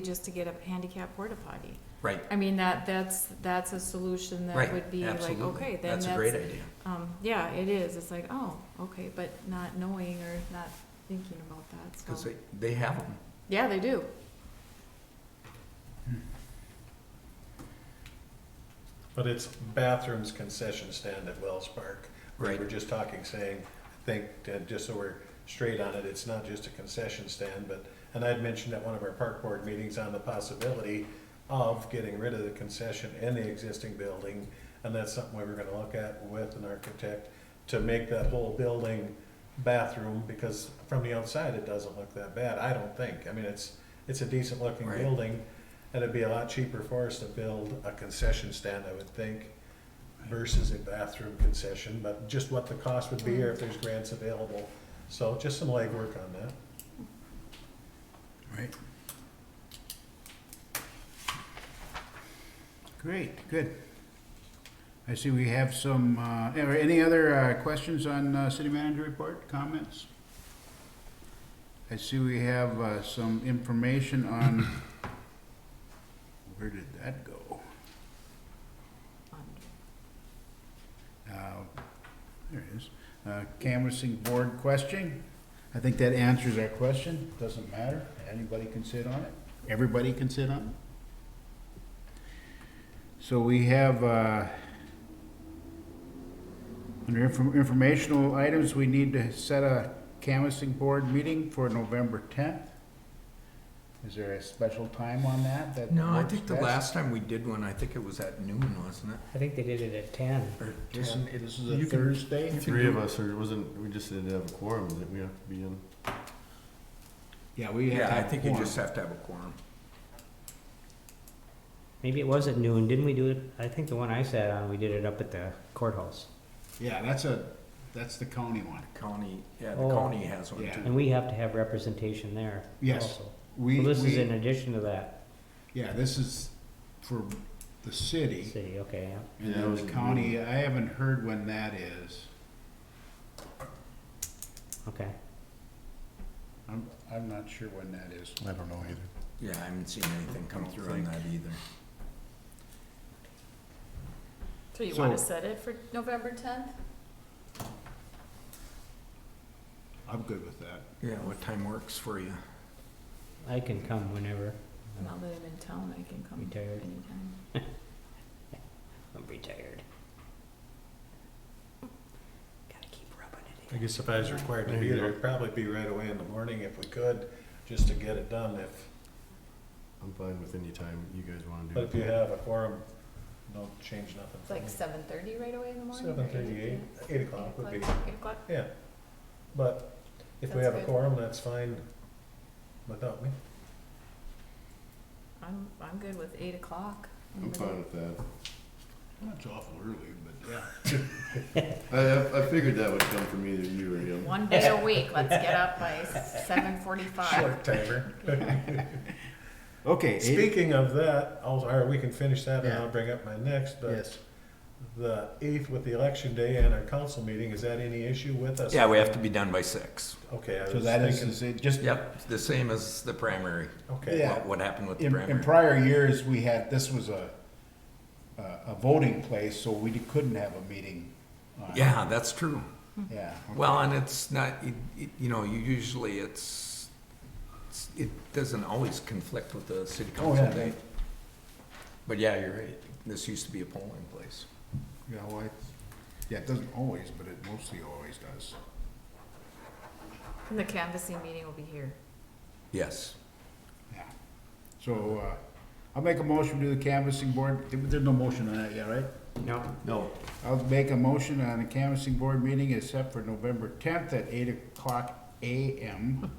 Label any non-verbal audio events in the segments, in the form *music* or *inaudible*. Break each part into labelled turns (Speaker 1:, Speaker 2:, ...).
Speaker 1: just to get a handicap porta potty.
Speaker 2: Right,
Speaker 1: I mean, that, that's, that's a solution that would
Speaker 2: right,
Speaker 1: be like, okay,
Speaker 2: absolutely.
Speaker 1: then that's.
Speaker 2: That's a great idea.
Speaker 1: Um, yeah, it is, it's like, oh, okay, but not knowing or not thinking about that,
Speaker 2: Because
Speaker 1: so.
Speaker 2: they, they have them.
Speaker 1: Yeah, they do.
Speaker 3: But it's bathrooms concession stand at Wells Park. We
Speaker 2: Right.
Speaker 3: were just talking, saying, I think, uh, just so we're straight on it, it's not just a concession stand, but, and I'd mentioned at one of our park board meetings on the possibility of getting rid of the concession in the existing building, and that's something we were gonna look at with an architect to make that whole building bathroom, because from the outside, it doesn't look that bad, I don't think. I mean, it's, it's a decent-looking
Speaker 2: Right.
Speaker 3: building, and it'd be a lot cheaper for us to build a concession stand, I would think, versus a bathroom concession, but just what the cost would be or if there's grants available. So just some legwork on that.
Speaker 4: Right. Great, good. I see we have some, uh, are any other uh, questions on uh, city manager report, comments? I see we have uh, some information on, where did that go? Uh, There it is. Uh, Canvassing board question. I think that answers our question. Doesn't matter. Anybody can sit on it. Everybody can sit on it. So we have, uh, under infor- informational items, we need to set a canvassing board meeting for November 10th. Is there a special time on that? that
Speaker 2: No, I
Speaker 4: works
Speaker 2: think the
Speaker 4: best?
Speaker 2: last time we did one, I think it was at noon, wasn't it?
Speaker 5: I think they did it at ten.
Speaker 2: Or
Speaker 4: Isn't- This is
Speaker 2: You
Speaker 4: a
Speaker 2: can-
Speaker 4: Thursday?
Speaker 6: Three of us, or it wasn't, we just didn't have a quorum, that we have to be in.
Speaker 4: Yeah, we have to
Speaker 2: Yeah, I
Speaker 4: have
Speaker 2: think you
Speaker 4: quorum.
Speaker 2: just have to have a quorum.
Speaker 5: Maybe it was at noon. Didn't we do it? I think the one I sat on, we did it up at the courthouse.
Speaker 4: Yeah, that's a, that's the county one.
Speaker 2: County, yeah, the
Speaker 5: Oh.
Speaker 2: county has one
Speaker 4: Yeah.
Speaker 2: too.
Speaker 5: And we have to have representation there
Speaker 4: Yes.
Speaker 5: also.
Speaker 4: We,
Speaker 5: Well, this is
Speaker 4: we-
Speaker 5: in addition to that
Speaker 4: yeah, this is for the city
Speaker 5: city, okay, yeah.
Speaker 4: and
Speaker 6: Yeah, it
Speaker 4: then
Speaker 6: was
Speaker 4: the
Speaker 6: in
Speaker 4: county. I haven't heard when that is.
Speaker 5: okay.
Speaker 4: I'm, I'm not sure when that is.
Speaker 6: I don't know either.
Speaker 2: Yeah, I haven't seen anything come
Speaker 6: Don't
Speaker 2: through on
Speaker 6: think.
Speaker 2: that either.
Speaker 1: So you
Speaker 4: So-
Speaker 1: wanna set it for November tenth?
Speaker 4: I'm good with that.
Speaker 2: Yeah, what time works for you?
Speaker 5: I can come whenever.
Speaker 1: Now that I'm in town, I can come
Speaker 5: You tired?
Speaker 1: anytime.
Speaker 5: I'm retired. Gotta keep rubbing it
Speaker 3: I
Speaker 5: in.
Speaker 3: guess if I was required to be there, it'd probably be right away in the morning if we could, just to get it done if,
Speaker 6: I'm fine with any time you guys wanna do.
Speaker 3: but
Speaker 6: it.
Speaker 3: if you have a quorum, don't change nothing.
Speaker 1: It's like seven thirty right away in the morning?
Speaker 3: Seven thirty-eight, eight o'clock would
Speaker 1: Like
Speaker 3: be,
Speaker 1: eight o'clock?
Speaker 3: yeah. But if we
Speaker 1: That's
Speaker 3: have a
Speaker 1: good.
Speaker 3: quorum, that's fine without me.
Speaker 1: I'm, I'm good with eight o'clock.
Speaker 6: I'm fine with that.
Speaker 4: That's awful early, but yeah.
Speaker 6: I, I, I figured that would come from either you or him.
Speaker 1: One day a week, let's get up by seven forty-five.
Speaker 3: *laughs* Short timer.
Speaker 4: Okay. *laughs* eight-
Speaker 3: Speaking of that, I'll, or we can finish that and I'll
Speaker 4: Yeah.
Speaker 3: bring up my next, but
Speaker 4: Yes.
Speaker 3: the eighth with the election day and our council meeting, is that any issue with us?
Speaker 2: Yeah, we have to be done by six.
Speaker 3: Okay, I
Speaker 4: So
Speaker 3: was
Speaker 4: that is,
Speaker 3: thinking,
Speaker 4: is it just,
Speaker 2: Yep, the same as the primary.
Speaker 3: okay,
Speaker 4: Yeah.
Speaker 2: What, what happened with the
Speaker 4: in, in
Speaker 2: primary?
Speaker 4: prior years, we had, this was a, a a voting place, so we couldn't have a meeting. on-
Speaker 2: Yeah, that's true.
Speaker 4: Yeah.
Speaker 2: Well, and it's not, it- it- you know, you usually it's, it's- it doesn't always conflict with the city
Speaker 4: Oh,
Speaker 2: council
Speaker 4: yeah.
Speaker 2: date. But yeah, you're right. This used to be a polling place.
Speaker 4: Yeah, well, it, yeah, it doesn't always, but it mostly always does.
Speaker 1: And the canvassing meeting will be here.
Speaker 2: Yes.
Speaker 4: Yeah. So, uh, I'll make a motion to the canvassing board, There- there's no motion on that yet, right?
Speaker 5: No,
Speaker 6: No,
Speaker 4: I'll make a motion on the canvassing board meeting is set for November tenth at eight o'clock AM,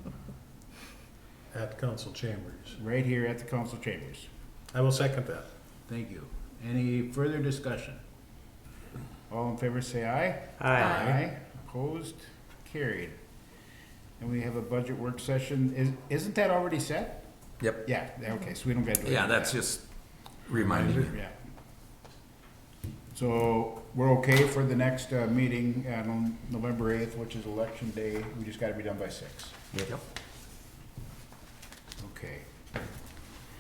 Speaker 3: at council chambers.
Speaker 4: right here at the council chambers.
Speaker 3: I will second that.
Speaker 4: Thank you. Any further discussion? All in favor, say aye.
Speaker 5: aye.
Speaker 4: Aye. Opposed, carried. And we have a budget work session, is, isn't that already set?
Speaker 2: Yep.
Speaker 4: Yeah, okay, so we don't gotta do it.
Speaker 2: Yeah, that's just reminding you.
Speaker 4: Yeah. So we're okay for the next uh, meeting on November 8th, which is election day. We just got to be done by six.
Speaker 2: Yep.